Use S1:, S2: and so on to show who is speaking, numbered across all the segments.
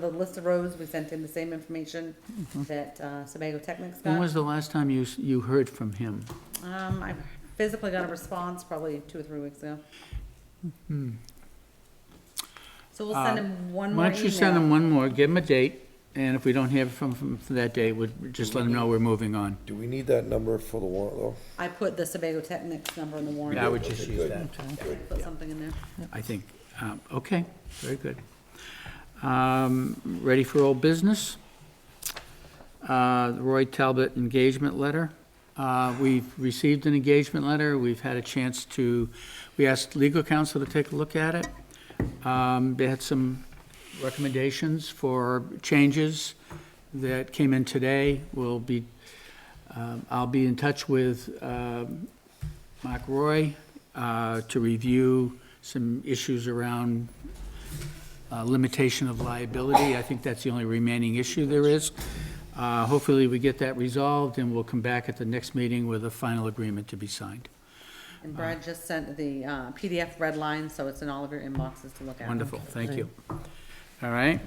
S1: The list of roads, we sent in the same information that uh, Sebago Technic's
S2: Mm-hmm. When
S1: got.
S2: was the last time you, s- you heard from him?
S1: Um, I physically got a response probably two or three weeks ago. So we'll send him one more
S2: Mm-hmm. Uh, Why
S1: email.
S2: don't you send him one more, give him a date, and if we don't hear from, from for that date, we'll just let him know we're moving on.
S3: Do we need that number for the warrant, though?
S1: I put the Sebago Technic's number in the warrant.
S2: I would just use that,
S1: Put something in there.
S2: I think. Um, Okay, very good. Um, Ready for old business? Uh, Roy Talbot engagement letter. Uh, We've received an engagement letter, we've had a chance to, we asked legal counsel to take a look at it. Um, They had some recommendations for changes that came in today. We'll be, um, I'll be in touch with um, Mark Roy uh, to review some issues around uh, limitation of liability. I think that's the only remaining issue there is. Uh, Hopefully, we get that resolved, and we'll come back at the next meeting with a final agreement to be signed.
S1: And Brad just sent the uh, PDF red line, so it's in all of your inboxes to look at.
S2: Wonderful, thank you. All right.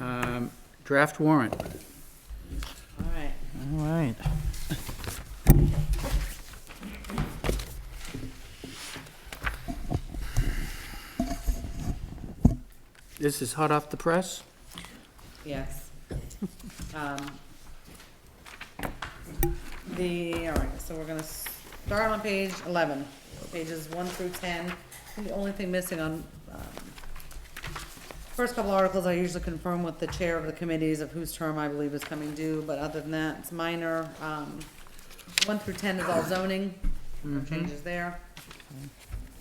S2: Um, Draft warrant.
S1: All right.
S4: All right.
S2: This is hot off the press?
S1: Yes. Um, The, all right, so we're gonna start on page eleven, pages one through ten. The only thing missing on, um, first couple articles, I usually confirm with the chair of the committees of whose term I believe is coming due, but other than that, it's minor. Um, One through ten is all zoning, no changes there.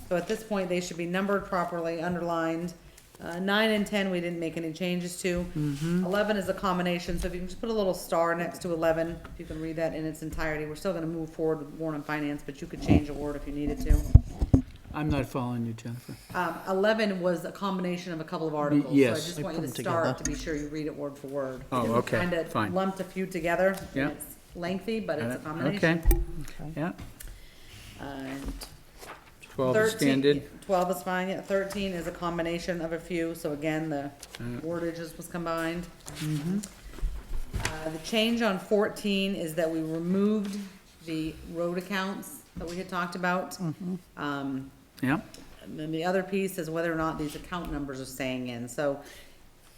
S1: So at this point, they should be numbered properly, underlined. Uh, nine and ten, we didn't make any changes to.
S2: Mm-hmm.
S1: Eleven is a combination, so if you can just put a little star next to eleven, if you can read that in its entirety, we're still gonna move forward with warrant and finance, but you could change a word if you needed to.
S2: I'm not following you, Jennifer.
S1: Um, eleven was a combination of a couple of articles, so I
S2: yes.
S1: just
S2: They
S1: want you to
S4: put them together.
S1: start to be sure you read it word for word.
S2: Oh,
S1: Because we
S2: okay,
S1: kinda
S2: fine.
S1: Lumped a few together. and
S2: Yeah.
S1: it's Lengthy, but it's a
S2: Okay,
S1: combination. Uh,
S2: yeah.
S1: And
S2: 12 is
S1: 13
S2: standard.
S1: Twelve is fine, yeah, thirteen is a combination of a few, so again, the
S2: Uh,
S1: wordages was combined.
S2: mm-hmm.
S1: Uh, the change on fourteen is that we removed the road accounts that we had talked about.
S2: Mm-hmm.
S1: Um,
S2: Yeah.
S1: and then the other piece is whether or not these account numbers are staying in, so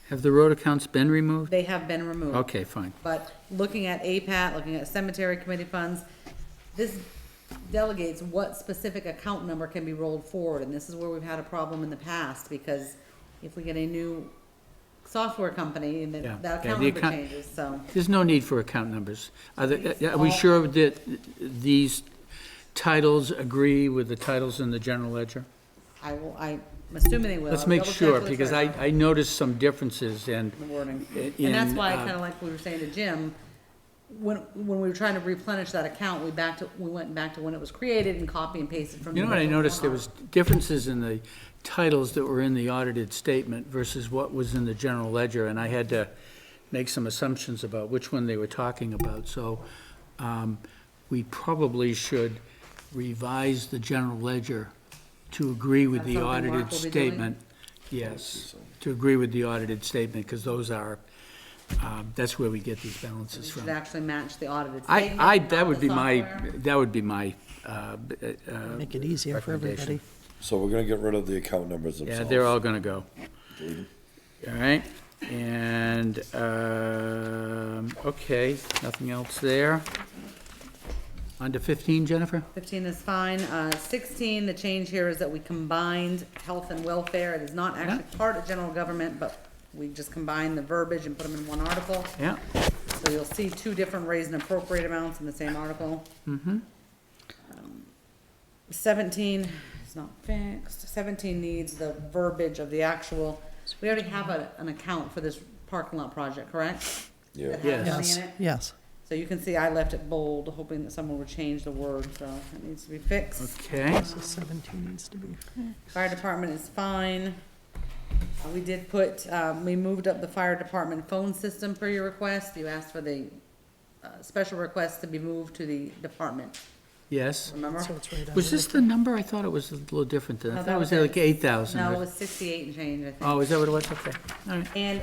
S2: Have the road accounts been removed?
S1: they have been removed.
S2: Okay, fine.
S1: But looking at APAT, looking at cemetery committee funds, this delegates what specific account number can be rolled forward, and this is where we've had a problem in the past, because if we get a new software company, and
S2: Yeah.
S1: then that
S2: Yeah,
S1: account
S2: the
S1: number
S2: account-
S1: changes, so.
S2: There's no need for account numbers. Are they- are we
S1: All-
S2: sure that these titles agree with the titles in the general ledger?
S1: I will, I'm assuming they will.
S2: Let's
S1: I'll
S2: make
S1: double check
S2: sure,
S1: with the
S2: because I,
S1: treasurer
S2: I noticed some differences and,
S1: on The wording.
S2: in,
S1: And that's why,
S2: uh,
S1: kinda like we were saying to Jim, when, when we were trying to replenish that account, we back to, we went back to when it was created and copy and pasted from. the
S2: you know what I
S1: original
S2: noticed? There
S1: one.
S2: was differences in the titles that were in the audited statement versus what was in the general ledger, and I had to make some assumptions about which one they were talking about. So um, we probably should revise the general ledger to agree with
S1: That's
S2: the
S1: something Mark
S2: audited
S1: will be doing?
S2: statement. Yes, to agree with the audited statement, because those are, um, that's where we get these balances
S1: It
S2: from.
S1: should actually match the audited
S2: I,
S1: statement.
S2: I,
S1: not
S2: that would
S1: the
S2: be my,
S1: software.
S2: that would be my, uh, b- uh,
S4: Make it easier for everybody.
S2: Recommendation.
S3: So we're gonna get rid of the account numbers
S2: yeah,
S3: themselves.
S2: they're all gonna go. All right, and, um, okay, nothing else there. Under fifteen, Jennifer?
S1: Fifteen is fine. Uh, sixteen, the change here is that we combined health and welfare. It is not actually part of general government, but we just combined the verbiage and put them in one article.
S2: Yeah,
S1: So you'll see two different raise and appropriate amounts in the same article. Mm-hmm. Seventeen is not fixed. Seventeen needs the verbiage of the actual, we already have a, an account for this parking lot project, correct?
S3: Yeah.
S1: That has money
S4: Yes,
S1: in it?
S4: yes.
S1: So you can see I left it bold, hoping that someone would change the word, so it needs to be fixed.
S2: okay,
S4: So 17 needs to be.
S1: Fire department is fine. Uh, We did put, um, we moved up the fire department phone system for your request. You asked for the, uh, special request to be moved to the department
S2: Yes.
S1: remember?
S4: So it's right under.
S2: Was this the number? I thought it was a little different than, I
S1: No,
S2: thought
S1: that
S2: it was
S1: was it.
S2: like eight thousand.
S1: No, it was sixty-eight and change, I think.
S2: Oh, is that what it was? Okay, all right.
S1: And